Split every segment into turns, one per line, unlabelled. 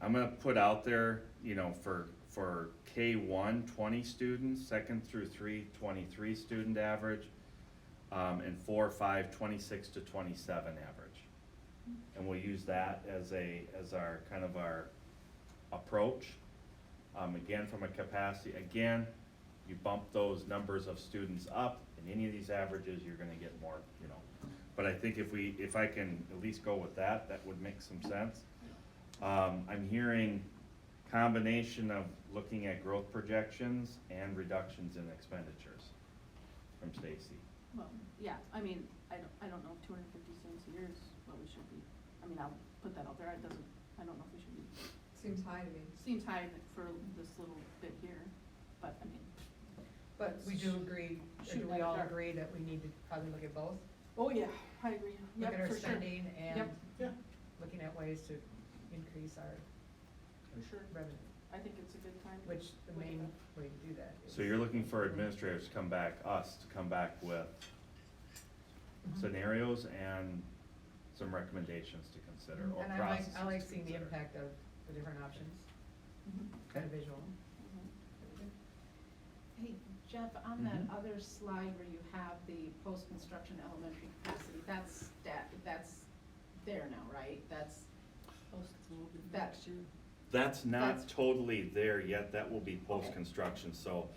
I'm gonna put out there, you know, for, for K one, twenty students, second through three, twenty-three student average, um, and four, five, twenty-six to twenty-seven average. And we'll use that as a, as our, kind of our approach. Um, again, from a capacity, again, you bump those numbers of students up, in any of these averages, you're gonna get more, you know. But I think if we, if I can at least go with that, that would make some sense. Um, I'm hearing combination of looking at growth projections and reductions in expenditures from Stacy.
Well, yeah, I mean, I don't, I don't know if two hundred and fifty students a year is what we should be, I mean, I'll put that out there, it doesn't, I don't know if we should be,
Seems high to me,
seems high for this little bit here, but I mean,
but we do agree, or
Shoot
do
like
we all
dark.
agree that we need to probably look at both?
oh yeah, I agree,
Look at
yep,
our
for sure,
spending and
Yep.
Yeah.
looking at ways to increase our
for sure,
revenue,
I think it's a good time.
which the
Look at
main
that.
way to do that is.
So you're looking for administrators to come back, us to come back with
Mm-hmm.
scenarios and some recommendations to consider or
And I like,
processes
I like
to
seeing the
consider.
impact of the different options,
Mhm,
kind of
Okay.
visual.
mhm.
Hey, Jeff, on that other slide where you have the post-construction elementary capacity, that's that, that's there now, right? That's, that,
That's not
That's-
totally there yet, that will be post-construction, so,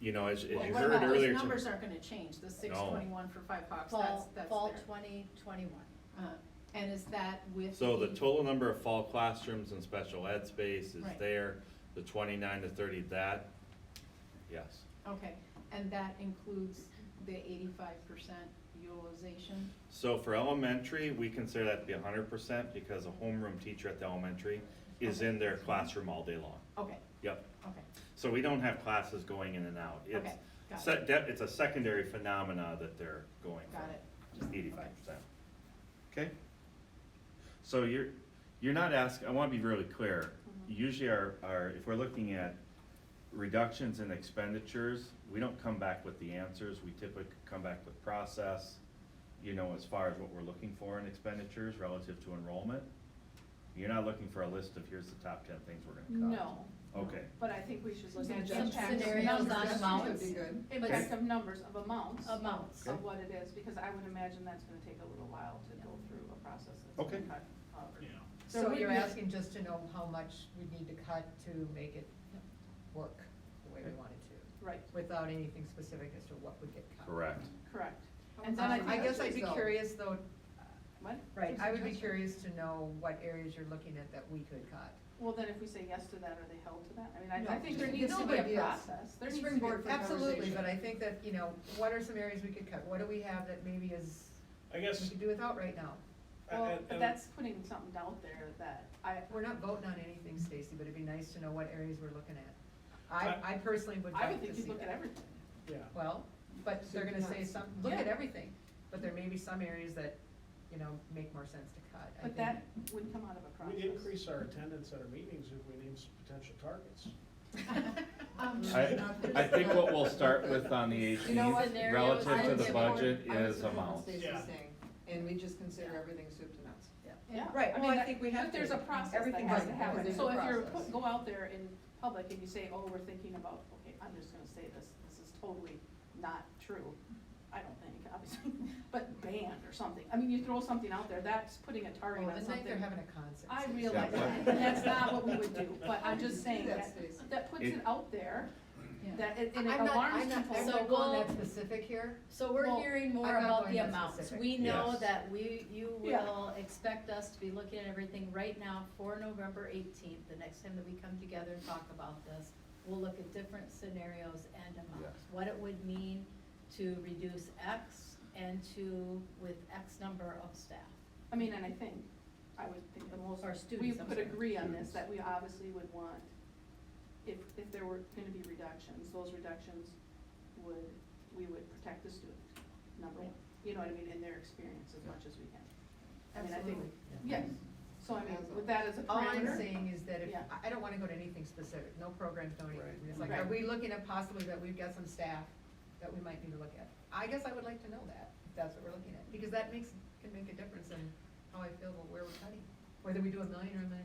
you know, as, as
well,
you
what
heard
about,
earlier.
those
to-
numbers aren't gonna change, the six twenty-one for Five Hawks, that's,
Fall,
that's
fall
there.
twenty twenty-one.
Uh, And is that with
So the
the-
total number of fall classrooms and special ed space is
Right.
there, the twenty-nine to thirty, that, yes.
Okay, and that includes the eighty-five percent utilization?
So for elementary, we consider that to be hundred percent because a homeroom teacher at the elementary is in their classroom all day long.
Okay,
Yep,
okay,
so we don't have classes going in and out. It's
okay, got
se-
it,
de- It's a secondary phenomena that they're going for.
got it.
Just eighty-five percent. Okay? So you're, you're not asking, I wanna be really clear.
Mm-hmm.
Usually our, our, if we're looking at reductions in expenditures, we don't come back with the answers. We typically come back with process, you know, as far as what we're looking for in expenditures relative to enrollment. You're not looking for a list of here's the top ten things we're gonna cut.
No,
Okay,
but I think we should look
Some
at the
Some
impact of
scenarios on
numbers,
amounts,
Would be good.
impact of numbers, of amounts, of
amounts.
Okay.
what it is, because I would imagine that's gonna take a little while to go through a process that's
Okay.
gonna cut, however.
Yeah.
There
So
would
you're
be-
asking just to know how much we need to cut to make it work the way we want it to,
Right,
without anything specific as to what would get cut.
correct.
correct.
Um,
And then I think.
I guess
that's-
I'd be
So-
curious though,
What?
right, I would be curious to know what areas you're looking at that we could cut.
Well, then if we say yes to that, are they held to that? I mean, I, I
No,
think
just
there
to
needs to
get some
be a
ideas.
process. There needs to be.
Springboard for Absolutely, but I think that, you know, what are some areas we could cut? What do we have that maybe is,
I
we
guess,
could do without right now?
Well,
and-
but
and-
that's putting something out there that I,
We're not voting on anything, Stacy, but it'd be nice to know what areas we're looking at. I, I personally would
I
like
would
to
think
see
you'd look at
that.
everything.
yeah,
Well, but they're gonna say some, look at
Yeah.
everything, but there may be some areas that, you know, make more sense to cut. I
But
think.
that would come out of a process.
we'd increase our attendance at our meetings if we named some potential targets.
Um,
I, I think what we'll start with on the
You know
eighteenth,
what?
relative
I
to
would
the
support-
budget, is
I would support what
amounts.
Stacy's
Yeah.
saying, and we just consider everything soup to nuts.
Yeah.
Right,
I
well,
mean,
I think we have
But there's
to.
a process that
Everything
has
has
to
to
happen.
happen.
So if you're,
Process.
put- go out there in public and you say, oh, we're thinking about, okay, I'm just gonna say this, this is totally not true. I don't think, obviously, but banned or something. I mean, you throw something out there, that's putting a target
Well,
on
the night they're
something.
having a concert.
I
Stacy.
realize that, and that's not what we would do, but I'm just saying
That's
that,
Stacy.
that puts
It-
it out there,
yeah.
that, it- and it
I'm not-
alarms
I'm not-
people.
I'm
So
not going
we'll-
that specific here.
So we're
Well,
hearing more
I'm not
about
going
the
that
amounts.
specific.
We know
Yes.
that we, you
Yeah.
will expect us to be looking at everything right now for November eighteenth. The next time that we come together and talk about this, we'll look at different scenarios and amounts.
Yes.
What it would mean to reduce X and to, with X number of staff.
I mean, and I think, I would think the most,
Or
we
students, I'm
could
sorry.
agree on this,
Students.
that we obviously would want, if, if there were gonna be reductions, those reductions would, we would protect the student, number one. You know what I mean, in their experience as much as we can. I mean, I think, yes, so I mean, with that as a
All I'm
parameter,
saying is that if,
Yeah.
I- I don't wanna go to anything specific, no programs, no anything.
Right.
It's like,
Right.
are we looking at possibly that we've got some staff that we might need to look at? I guess I would like to know that, if that's what we're looking at, because that makes, can make a difference in how I feel about where we're cutting, whether we do a million or a million